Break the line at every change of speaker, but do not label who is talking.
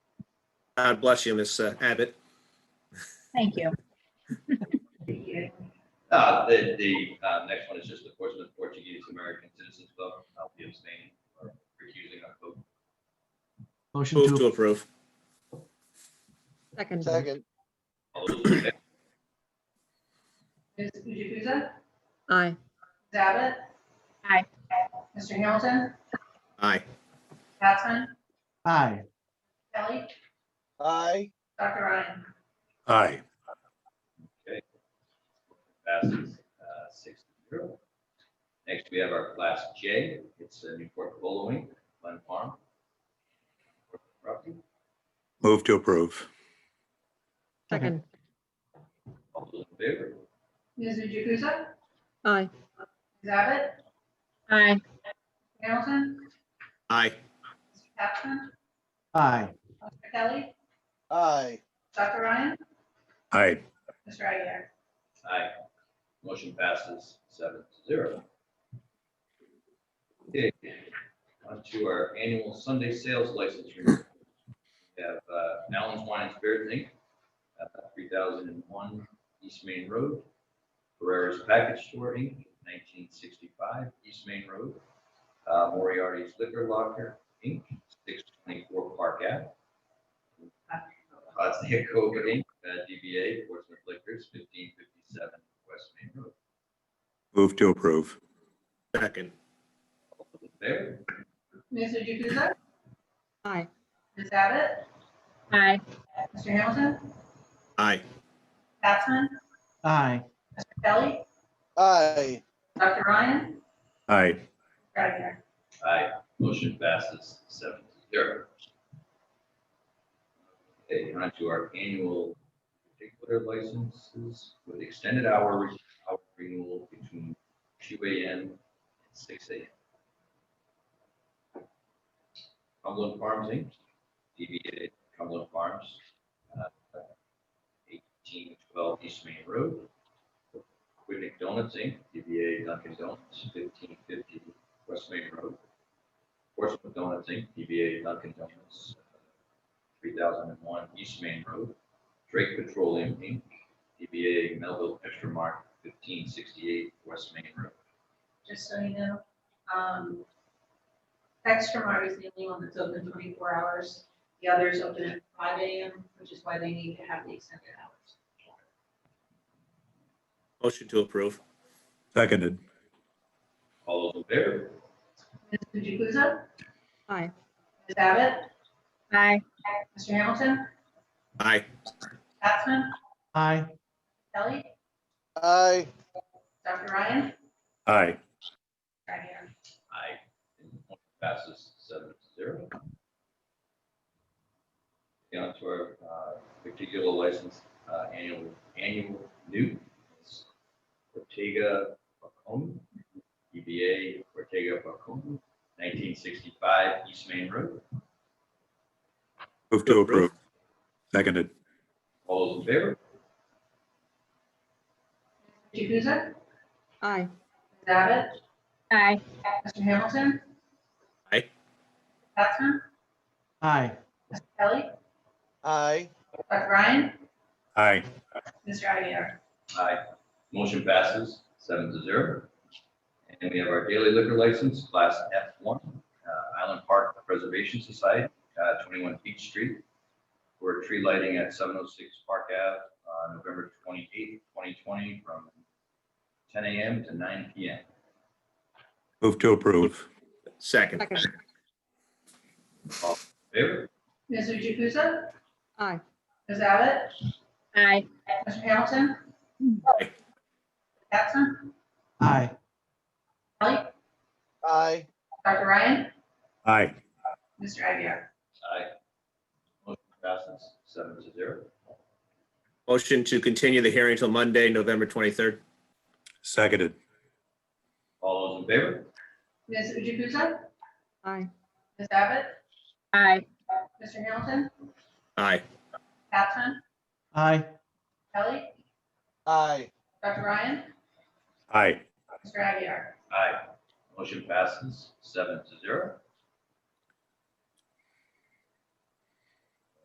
God bless you, Ms. Abbott.
Thank you.
Uh, the, the, uh, next one is just the Portsmouth Portuguese American Citizens Club. I'll be abstaining or recusing on vote.
Motion
Move to
to,
approve.
Second.
Second,
All those in favor?
Ms. Jukusa?
Aye.
Ms. Abbott?
Aye.
Mr. Hamilton?
Aye.
Capson?
aye.
Kelly?
aye,
Dr. Ryan?
aye,
Passes, uh, six to zero. Next, we have our class J. It's uh, Newport Bowling, Glen Farm. Property.
move to approve,
Second.
All those in favor?
Ms. Jukusa?
Aye.
Ms. Abbott?
Aye.
Hamilton?
Aye.
Mr. Capson?
Aye.
Dr. Kelly?
aye,
Dr. Ryan?
aye,
Mr. Aguirre?
Aye. Motion passes seven to zero. Okay, on to our annual Sunday sales license. renewal. We have uh, Allen's Wine and Spirits Inc., uh, 3001 East Main Road. Ferrera's Package Store Inc., 1965 East Main Road. Uh, Moriarty's Liquor Locker Inc., 624 Park Ave. Hudson Cove Inc., uh, DBA Portsmouth Liquors, 1557 West Main Road.
move to approve,
Second.
All those in favor?
Ms. Jukusa?
Aye.
Ms. Abbott?
Aye.
Mr. Hamilton?
Aye.
Capson?
Aye.
Mr. Kelly?
aye,
Dr. Ryan?
aye,
Mr. Aguirre?
Aye. Motion passes seven to zero. Okay, on to our annual particular licenses with extended hours, hour renewal between two AM and six AM. Cumberland Farms Inc., DBA Cumberland Farms, uh, eighteen twelve East Main Road. Quidnick Donuts Inc., DBA Dunkin' Donuts, fifteen fifty West Main Road. Portsmouth Donuts Inc., DBA Dunkin' Donuts, three thousand and one East Main Road. Drake Petroleum Inc., DBA Melville Extra Mark, fifteen sixty-eight West Main Road.
Just so you know, um, Textramar is the only one that's open twenty-four hours. The others open at five AM, which is why they need to have the extended hours.
Motion to approve.
seconded,
All those in favor?
Ms. Jukusa?
Aye.
Ms. Abbott?
Aye.
Mr. Hamilton?
Aye.
Capson?
Aye.
Kelly?
aye,
Dr. Ryan?
aye,
Right here.
Aye. And the motion Passes seven to zero. Down to our uh, particular license, uh, annual, annual new. It's Ortega Pacom, DBA Ortega Pacom, 1965 East Main Road.
move to approve, seconded,
All those in favor?
Jukusa? Ms.
Aye.
Abbott?
Aye.
Mr. Hamilton?
Aye.
Capson?
Aye.
Kelly?
aye,
Dr. Ryan?
aye,
Mr. Aguirre?
Aye. Motion passes seven to zero. And we have our daily liquor license, class F1, uh, Island Park Preservation Society, uh, 21 Beach Street. For tree lighting at 706 Park Ave, uh, November 28th, 2020, from 10 AM to 9 PM.
move to approve,
Second.
Second.
Favor?
Ms. Jukusa?
Aye.
Ms. Abbott?
Aye.
Mr. Hamilton?
Aye.
Capson?
Aye.
Kelly?
aye,
Dr. Ryan?
aye,
Mr. Aguirre?
Aye. Motion passes seven to zero.
Motion to continue the hearing till Monday, November 23rd.
seconded,
All those in favor?
Ms. Jukusa?
Aye.
Ms. Abbott?
Aye.
Mr. Hamilton?
Aye.
Capson?
Aye.
Kelly?
aye,
Dr. Ryan?
aye,
Mr. Aguirre?
Aye. Motion passes seven to zero.